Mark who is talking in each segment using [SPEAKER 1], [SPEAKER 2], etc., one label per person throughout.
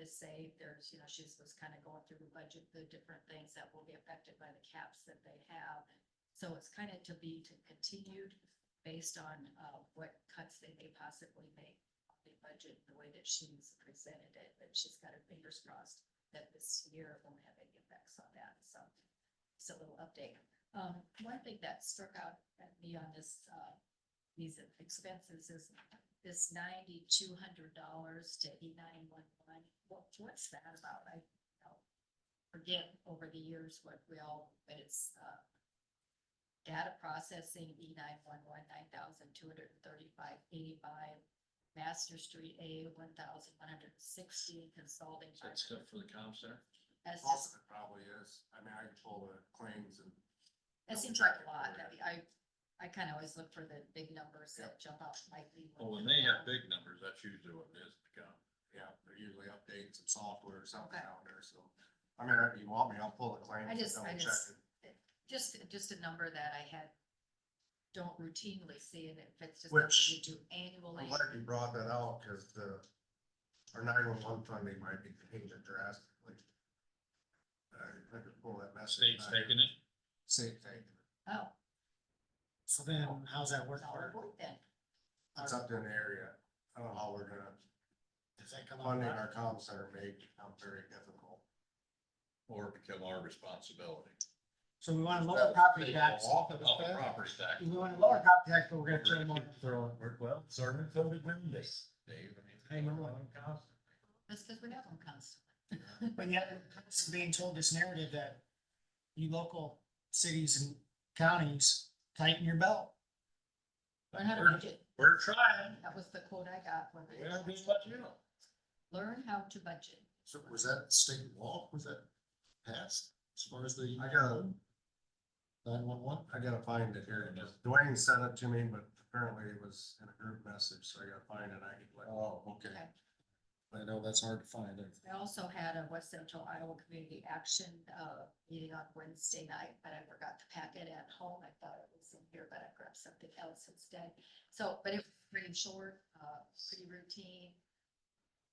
[SPEAKER 1] is safe. There's, you know, she's was kind of going through the budget, the different things that will be affected by the caps that they have. So it's kind of to be to continued based on, uh, what cuts they may possibly make on the budget, the way that she's presented it, but she's got her fingers crossed that this year won't have any effects on that, so. It's a little update. Um, one thing that struck out at me on this, uh, these expenses is this ninety-two hundred dollars to eighty-nine one one. What, what's that about? I you know, forget over the years what we all, but it's, uh, data processing, E nine one one, nine thousand two hundred and thirty-five eighty-five, Master Street A, one thousand one hundred and sixty, consulting.
[SPEAKER 2] Is that stuff for the comp center?
[SPEAKER 1] That's just
[SPEAKER 3] Possibly, probably is. I mean, I control the claims and
[SPEAKER 1] That
[SPEAKER 3] Double
[SPEAKER 1] seems like
[SPEAKER 3] check
[SPEAKER 1] a lot,
[SPEAKER 3] it.
[SPEAKER 1] I mean, I, I kind of always look for the big numbers that jump out slightly.
[SPEAKER 2] Well, when they have big numbers, that's usually what it is to come.
[SPEAKER 3] Yeah, they're usually updating some software or something
[SPEAKER 1] Okay.
[SPEAKER 3] out there, so. I mean, if you want me, I'll pull the claim.
[SPEAKER 1] I just- I just-
[SPEAKER 3] it.
[SPEAKER 1] Just, just a number that I had, don't routinely see, and if it's just
[SPEAKER 3] Which-
[SPEAKER 1] something you do annually.
[SPEAKER 3] I'm glad you brought that out, cause the, our nine-one-one funding might be changed drastically. Uh, I I could pull that message.
[SPEAKER 2] State's
[SPEAKER 3] back.
[SPEAKER 2] taking it.
[SPEAKER 3] State taking it.
[SPEAKER 1] Oh,
[SPEAKER 4] So then, how's that work?
[SPEAKER 1] it's all
[SPEAKER 4] for-
[SPEAKER 1] work then,
[SPEAKER 3] It's up to an area. I don't know how we're gonna,
[SPEAKER 4] Does that come out? of
[SPEAKER 3] funding
[SPEAKER 4] our-
[SPEAKER 3] our comm center may become very difficult.
[SPEAKER 2] Or become our responsibility.
[SPEAKER 4] So we want to lower property tax.
[SPEAKER 2] Off of the property tax.
[SPEAKER 4] We want to lower property tax, but we're gonna throw more.
[SPEAKER 2] well, Sermon filled it with this. Dave, I
[SPEAKER 4] Hey,
[SPEAKER 2] mean.
[SPEAKER 4] remember when
[SPEAKER 1] that's because we have them constantly.
[SPEAKER 4] But yet, it's being told this narrative that you local cities and counties tighten your belt.
[SPEAKER 1] Learn how to
[SPEAKER 2] Sure.
[SPEAKER 1] budget,
[SPEAKER 2] We're trying.
[SPEAKER 1] that was the quote I got when
[SPEAKER 2] We are
[SPEAKER 1] they,
[SPEAKER 2] being let you know.
[SPEAKER 1] learn how to budget.
[SPEAKER 3] So was that state law, was that passed as far as the? I gotta. Nine one one? I gotta find it here, Dwayne sent it to me, but apparently it was in a group message, so I gotta find it, I can like. Oh, okay.
[SPEAKER 1] Okay.
[SPEAKER 3] I know that's hard to find, it.
[SPEAKER 1] I also had a West Central Iowa Community Action, uh, meeting on Wednesday night, but I forgot the packet at home. I thought it was in here, but I grabbed something else instead. So, but it was pretty short, uh, pretty routine.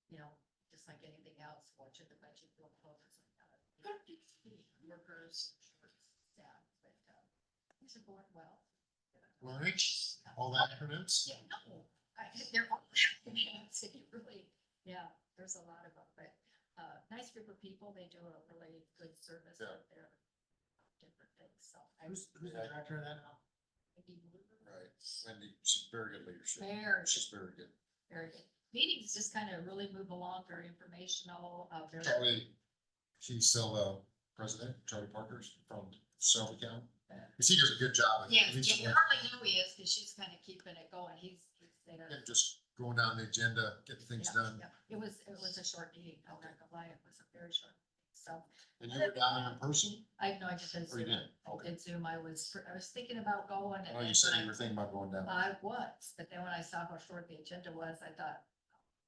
[SPEAKER 1] You know, just like anything else, watching the budget real close, it's like, uh, workers, short staff, but, uh, things are going well.
[SPEAKER 3] Lurch, all the acronyms?
[SPEAKER 1] Yeah, no, I, they're all, acronyms, and you really, yeah, there's a lot of them, but, uh, nice group of people, they do a really good service
[SPEAKER 3] Yeah.
[SPEAKER 1] out there. Different things, so I was,
[SPEAKER 4] Who's, who's the director of that now?
[SPEAKER 1] maybe,
[SPEAKER 3] Right, Wendy, she's very good leadership,
[SPEAKER 1] very,
[SPEAKER 3] very good.
[SPEAKER 1] very good. Meetings just kind of really move along, very informational, uh, very,
[SPEAKER 3] Charlie, she's still the president, Charlie Parker's from Shelby County. Cause he does a good job.
[SPEAKER 1] yeah, yeah, Harley know he is, cause she's kind of keeping it going, he's, he's there.
[SPEAKER 3] And just going down the agenda, getting things
[SPEAKER 1] Yeah,
[SPEAKER 3] done.
[SPEAKER 1] yeah. It was, it was a short meeting, I'm not gonna lie, it was a very short, meeting. so.
[SPEAKER 3] And you were down in person?
[SPEAKER 1] I know, I just did
[SPEAKER 3] Or Oh, you
[SPEAKER 1] Zoom.
[SPEAKER 3] didn't?
[SPEAKER 1] I
[SPEAKER 3] Okay.
[SPEAKER 1] did Zoom. I was, I was thinking about going. and
[SPEAKER 3] Oh, you
[SPEAKER 1] then
[SPEAKER 3] said
[SPEAKER 1] when
[SPEAKER 3] you were thinking about going down.
[SPEAKER 1] I I was, but then when I saw how short the agenda was, I thought,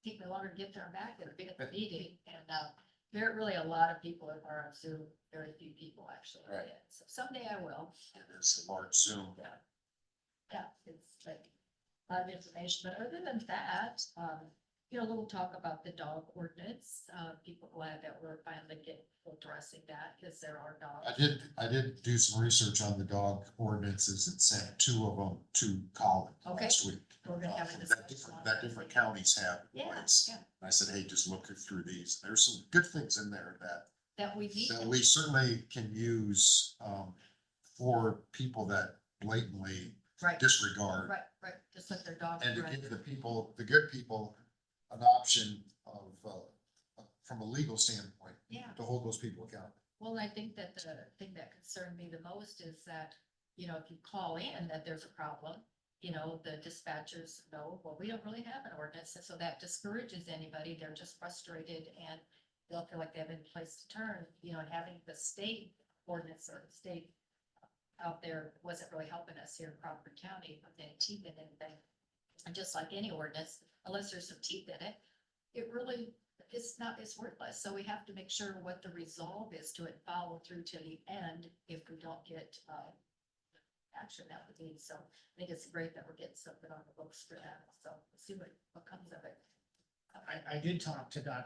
[SPEAKER 1] take me longer to get there and back than to be at the meeting. And, uh, there are really a lot of people that are on Zoom, very few people actually. are
[SPEAKER 3] Right.
[SPEAKER 1] in. So someday I will.
[SPEAKER 3] It's a large Zoom.
[SPEAKER 1] Yeah. Yeah, it's like a lot of information, but other than that, um, you know, a little talk about the dog ordinance. Uh, people glad that we're finally getting, addressing that because there are dogs.
[SPEAKER 3] I did, I did do some research on the dog ordinances and sent two of them to Colin
[SPEAKER 1] Okay.
[SPEAKER 3] last week.
[SPEAKER 1] We're gonna
[SPEAKER 3] uh,
[SPEAKER 1] have a
[SPEAKER 3] from That
[SPEAKER 1] discussion on
[SPEAKER 3] different, that
[SPEAKER 1] that.
[SPEAKER 3] different counties have. in
[SPEAKER 1] Yeah,
[SPEAKER 3] place.
[SPEAKER 1] yeah.
[SPEAKER 3] And I said, hey, just look through these. There's some good things in there that,
[SPEAKER 1] That we need,
[SPEAKER 3] that we certainly can use, um, for people that blatantly
[SPEAKER 1] right,
[SPEAKER 3] disregard.
[SPEAKER 1] right, right, just let their dog.
[SPEAKER 3] And to
[SPEAKER 1] run.
[SPEAKER 3] give the people, the good people, an option of, uh, from a legal standpoint,
[SPEAKER 1] Yeah,
[SPEAKER 3] to hold those people accountable.
[SPEAKER 1] well, I think that the thing that concerned me the most is that, you know, if you call in that there's a problem, you know, the dispatchers know, well, we don't really have an ordinance, and so that discourages anybody, they're just frustrated and they'll feel like they have any place to turn, you know, and having the state ordinance or the state out there wasn't really helping us here in Crawford County with any teeth in anything. And just like any ordinance, unless there's some teeth in it, it really, it's not, it's worthless. So we have to make sure what the resolve is to it, follow through to the end if we don't get, uh, action that would be. So I think it's great that we're getting something on the books for that. So we'll see what, what comes of it.
[SPEAKER 4] I, I did talk to Dr.